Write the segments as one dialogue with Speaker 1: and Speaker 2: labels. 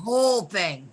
Speaker 1: whole thing.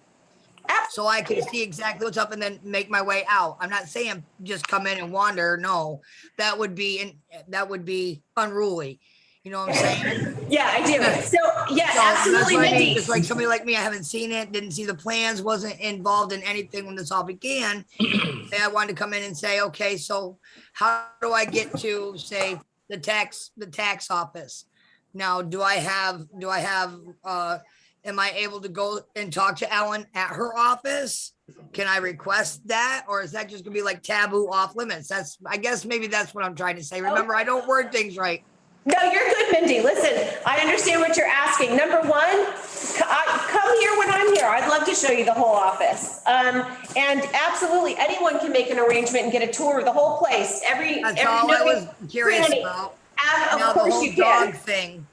Speaker 1: So I can see exactly what's up and then make my way out. I'm not saying just come in and wander. No, that would be, and that would be unruly. You know what I'm saying?
Speaker 2: Yeah, I do. So, yeah,
Speaker 1: So that's
Speaker 2: absolutely,
Speaker 1: what I mean,
Speaker 2: Mindy.
Speaker 1: Just like somebody like me, I haven't seen it, didn't see the plans, wasn't involved in anything when this all began. And I wanted to come in and say, okay, so how do I get to, say, the tax, the tax office? Now, do I have, do I have, uh, am I able to go and talk to Ellen at her office? Can I request that? Or is that just gonna be like taboo off limits? That's, I guess maybe that's what I'm trying to say. Remember, I don't word things right.
Speaker 2: No, you're good, Mindy. Listen, I understand what you're asking. Number one, c- I- come here when I'm here. I'd love to show you the whole office. Um, and absolutely, anyone can make an arrangement and get a tour of the whole place, every,
Speaker 1: That's
Speaker 2: every
Speaker 1: all I
Speaker 2: nook
Speaker 1: was
Speaker 2: and
Speaker 1: curious
Speaker 2: cranny.
Speaker 1: about.
Speaker 2: Ab-
Speaker 1: now
Speaker 2: Of
Speaker 1: the
Speaker 2: course
Speaker 1: whole
Speaker 2: you
Speaker 1: dog
Speaker 2: can.
Speaker 1: thing.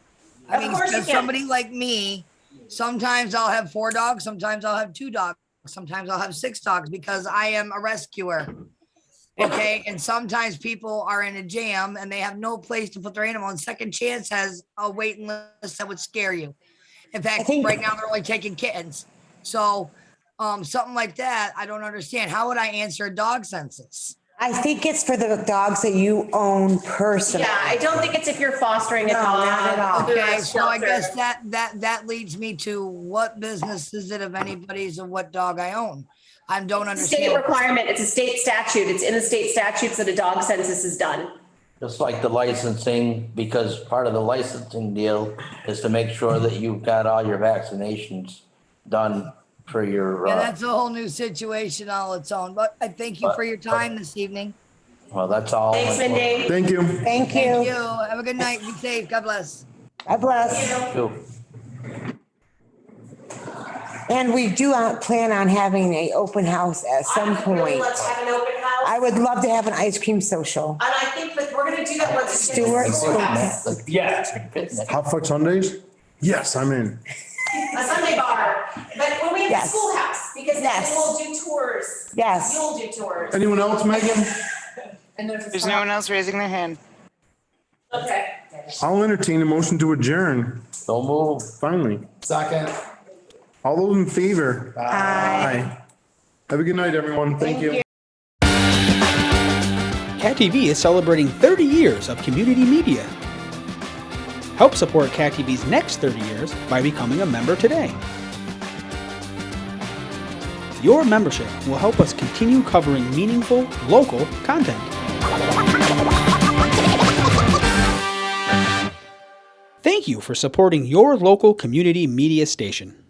Speaker 1: I
Speaker 2: Of
Speaker 1: mean,
Speaker 2: course you
Speaker 1: for
Speaker 2: can.
Speaker 1: somebody like me, sometimes I'll have four dogs, sometimes I'll have two dogs, sometimes I'll have six dogs because I am a rescuer. Okay, and sometimes people are in a jam and they have no place to put their animal, and Second Chance has a waiting list that would scare you. In fact, right now they're only taking kittens. So, um, something like that, I don't understand. How would I answer a dog census?
Speaker 3: I think it's for the dogs that you own personally.
Speaker 2: Yeah, I don't think it's if you're fostering a
Speaker 3: No,
Speaker 2: dog.
Speaker 3: not at all.
Speaker 2: or a
Speaker 1: Okay, so I guess
Speaker 2: shelter.
Speaker 1: that, that, that leads me to what business is it of anybody's of what dog I own? I don't
Speaker 2: State
Speaker 1: understand.
Speaker 2: requirement, it's a state statute. It's in the state statutes that a dog census is done.
Speaker 4: Just like the licensing, because part of the licensing deal is to make sure that you've got all your vaccinations done for your,
Speaker 1: Yeah,
Speaker 4: uh,
Speaker 1: that's a whole new situation all its own, but I thank you for your time this evening.
Speaker 4: well, that's all.
Speaker 2: Thanks, Mindy.
Speaker 5: Thank you.
Speaker 3: Thank
Speaker 1: Thank you.
Speaker 3: you.
Speaker 1: Have a good night. Be safe. God bless.
Speaker 3: God bless.
Speaker 4: Too.
Speaker 3: And we do uh, plan on having a open house at some point.
Speaker 2: Let's have an open house.
Speaker 3: I would love to have an ice cream social.
Speaker 2: And I think that we're gonna do that once. we get
Speaker 3: Stuart.
Speaker 2: the schoolhouse.
Speaker 6: Yeah.
Speaker 5: Hot Fuck Sundays? Yes, I'm in.
Speaker 2: A Sunday bar, but when we have the
Speaker 3: Yes.
Speaker 2: schoolhouse, because then
Speaker 3: Yes.
Speaker 2: we'll do tours.
Speaker 3: Yes.
Speaker 2: You'll do tours.
Speaker 5: Anyone else, Megan?
Speaker 7: There's no one else raising their hand.
Speaker 2: Okay.
Speaker 5: I'll entertain a motion to adjourn,
Speaker 4: Don't move.
Speaker 5: finally.
Speaker 6: Second.
Speaker 5: All those in favor? Aye. Have a good night, everyone. Thank you.
Speaker 8: Cat TV is celebrating 30 years of community media. Help support Cat TV's next 30 years by becoming a member today. Your membership will help us continue covering meaningful, local content. Thank you for supporting your local community media station.